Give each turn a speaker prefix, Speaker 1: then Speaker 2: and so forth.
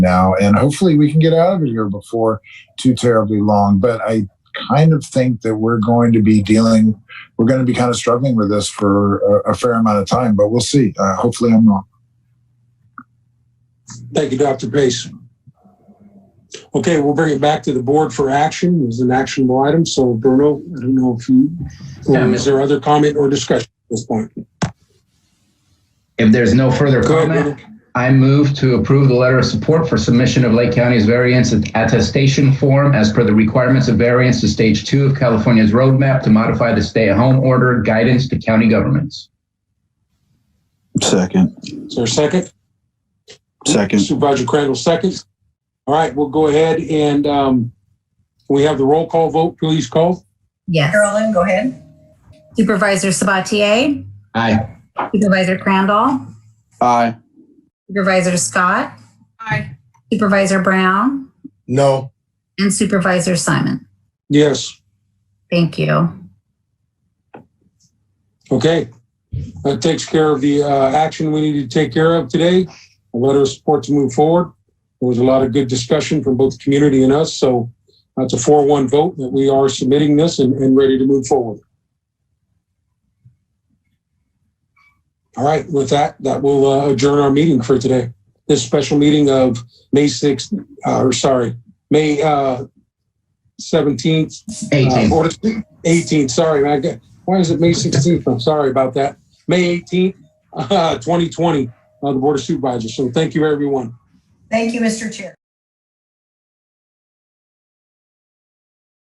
Speaker 1: now, and hopefully we can get out of it here before too terribly long. But I kind of think that we're going to be dealing, we're going to be kind of struggling with this for a, a fair amount of time, but we'll see. Uh, hopefully I'm wrong.
Speaker 2: Thank you, Dr. Pace. Okay, we'll bring it back to the board for action. It was an actionable item. So Bruno, I don't know if you,
Speaker 3: Yeah.
Speaker 2: is there other comment or discussion at this point?
Speaker 3: If there's no further
Speaker 2: Go ahead, Bruno.
Speaker 3: comment, I move to approve the letter of support for submission of Lake County's variance attestation form as per the requirements of variance to stage two of California's roadmap to modify the stay-at-home order guidance to county governments.
Speaker 4: Second.
Speaker 2: Is there a second?
Speaker 4: Second.
Speaker 2: Supervisor Crandall, second. All right, we'll go ahead and um, we have the roll call vote. Please call.
Speaker 5: Yes.
Speaker 6: Carolyn, go ahead.
Speaker 5: Supervisor Sabatier?
Speaker 3: Aye.
Speaker 5: Supervisor Crandall?
Speaker 4: Aye.
Speaker 5: Supervisor Scott?
Speaker 6: Aye.
Speaker 5: Supervisor Brown?
Speaker 7: No.
Speaker 5: And Supervisor Simon?
Speaker 2: Yes.
Speaker 5: Thank you.
Speaker 2: Okay. That takes care of the uh, action we need to take care of today. A letter of support to move forward. There was a lot of good discussion from both the community and us, so that's a 4-1 vote that we are submitting this and, and ready to move forward. All right, with that, that will uh, adjourn our meeting for today. This special meeting of May 6th, uh, or sorry, May uh, 17th,
Speaker 3: Eighteen.
Speaker 2: uh, order- 18, sorry, I got, why is it May 16th? I'm sorry about that. May 18th, uh, 2020, uh, the Board of Supervisors. So thank you, everyone.
Speaker 6: Thank you, Mr. Chair.